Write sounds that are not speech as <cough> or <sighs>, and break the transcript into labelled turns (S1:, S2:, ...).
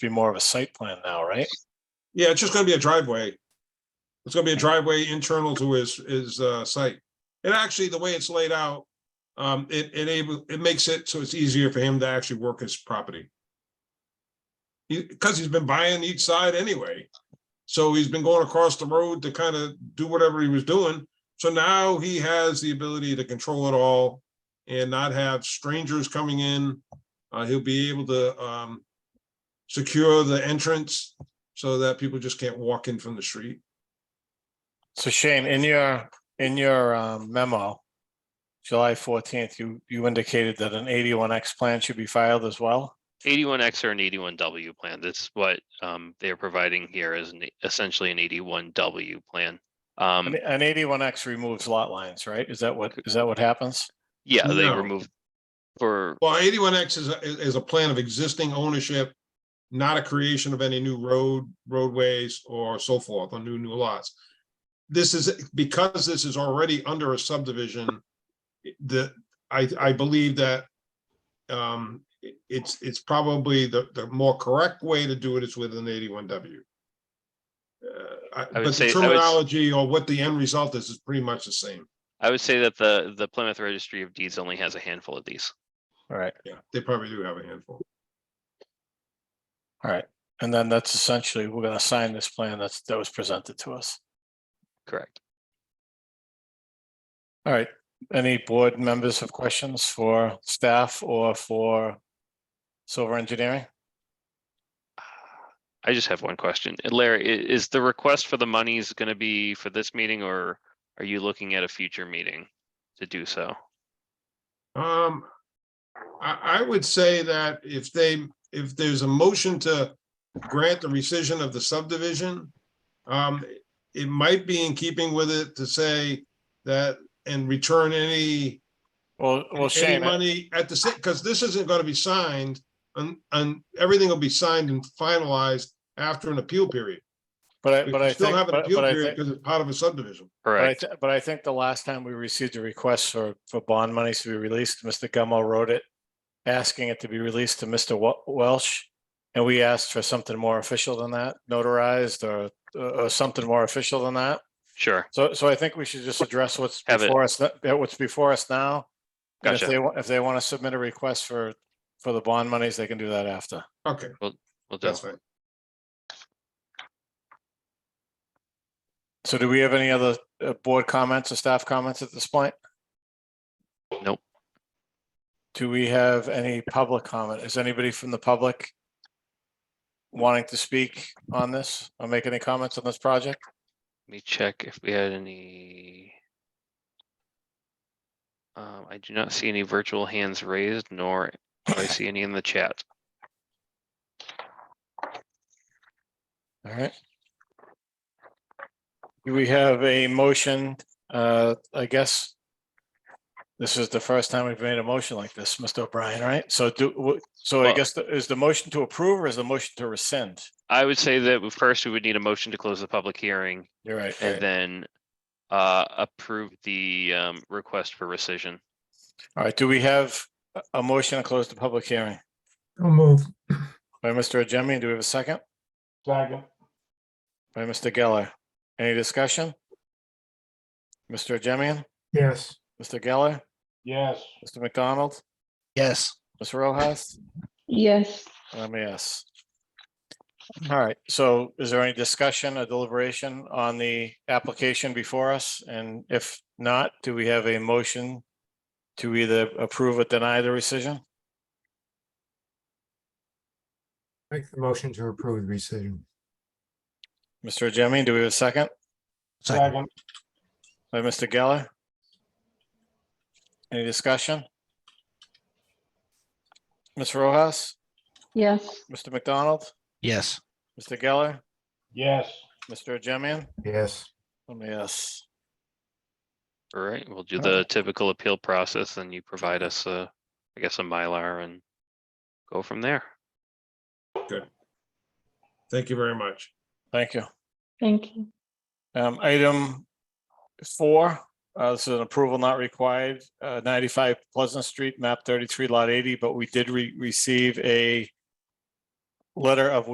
S1: be more of a site plan now, right?
S2: Yeah, it's just gonna be a driveway. It's gonna be a driveway internal to his, his, uh, site. And actually, the way it's laid out, um, it enable, it makes it so it's easier for him to actually work his property. He, because he's been buying each side anyway. So he's been going across the road to kind of do whatever he was doing. So now he has the ability to control it all and not have strangers coming in. Uh, he'll be able to, um, secure the entrance so that people just can't walk in from the street.
S1: So Shane, in your, in your um, memo, July fourteenth, you, you indicated that an eighty-one X plan should be filed as well.
S3: Eighty-one X or an eighty-one W plan. This is what um they're providing here is an- essentially an eighty-one W plan. Um,
S1: An- An eighty-one X removes lot lines, right? Is that what, is that what happens?
S3: yeah, they
S2: No.
S3: removed for,
S2: Well, eighty-one X is, a- is a plan of existing ownership, not a creation of any new road, roadways or so forth, or new, new lots. This is, because this is already under a subdivision, the, I, I believe that um, it- it's, it's probably the, the more correct way to do it is with an eighty-one W. Uh, I-
S3: would
S2: But
S3: say- I
S2: the
S3: would s-
S2: terminology or what the end result is, is pretty much the same.
S3: I would say that the the Plymouth Registry of Deeds only has a handful of these.
S1: All right,
S2: Yeah, they probably do have a handful.
S1: all right. And then that's essentially, we're gonna sign this plan that's, that was presented to us.
S3: Correct. <sighs>
S1: All right, any board members have questions for staff or for Silver Engineering?
S3: I just have one question. And Larry, i- is the request for the monies gonna be for this meeting or are you looking at a future meeting to do so?
S2: Um, I, I would say that if they, if there's a motion to grant the rescission of the subdivision, um, it might be in keeping with it to say that and return any,
S1: Well, well,
S2: any
S1: Shane, I-
S2: money at the, because this isn't going to be signed and, and everything will be signed and finalized after an appeal period.
S1: but I,
S2: We
S1: but
S2: can
S1: I
S2: Still
S1: think,
S2: have an
S1: but
S2: appeal
S1: but I
S2: period
S1: think.
S2: because it's part of a subdivision.
S1: But I,
S3: Correct.
S1: thi- but I think the last time we received a request for, for bond monies to be released, Mr. Gummo wrote it, asking it to be released to Mr. Wel- Welsh. And we asked for something more official than that, notarized or, or something more official than that.
S3: Sure.
S1: So, so I think we should just address what's
S3: Have it.
S1: before us, th- uh, what's before us now. And if
S3: Gotcha.
S1: they, wa- if they want to submit a request for, for the bond monies, they can do that after.
S2: Okay,
S3: We'll do.
S2: that's fine.
S1: So do we have any other uh, board comments or staff comments at this point?
S3: Nope.
S1: Do we have any public comment? Is anybody from the public wanting to speak on this or make any comments on this project?
S3: Let me check if we had any. Um, I do not see any virtual hands raised, nor do I see any in the chat.
S1: All right. Do we have a motion? Uh, I guess this is the first time we've made a motion like this, Mr. O'Brien, right? So do, w- so I
S3: Well-
S1: guess the- is the motion to approve or is the motion to rescind?
S3: I would say that we- first we would need a motion to close the public hearing
S1: You're right. you're right.
S3: and then uh, approve the um, request for rescission.
S1: All right, do we have a- a motion to close the public hearing?
S2: move.
S1: By Mr. Ajemian, do we have a second?
S2: Second.
S1: By Mr. Geller. Any discussion? Mr. Ajemian,
S2: Yes.
S1: Mr. Geller,
S2: Yes.
S1: Mr. McDonald,
S4: Yes.
S1: Ms. Rojas,
S5: Yes,
S1: and I'm a yes.
S6: Mm-hmm.
S1: All right, so is there any discussion or deliberation on the application before us? And if not, do we have a motion to either approve or deny the rescission?
S6: Make the motion to approve the rescission.
S1: Mr. Ajemian, do we have a second?
S4: Second.
S1: By Mr. Geller? Any discussion? Ms. Rojas,
S5: yes,
S1: Mr. McDonald,
S4: Yes.
S1: Mr. Geller,
S2: Yes.
S1: Mr. Jemian?
S6: Yes.
S1: Let me ask.
S3: All right, we'll do
S1: Alright.
S3: the typical appeal process and you provide us, uh, I guess, a Mylar and go from there.
S2: Thank you very much.
S1: Thank you.
S5: thank you.
S1: Um, item four, uh, this is an approval not required, uh, ninety-five Pleasant Street, map thirty-three, lot eighty, but we did re- receive a letter of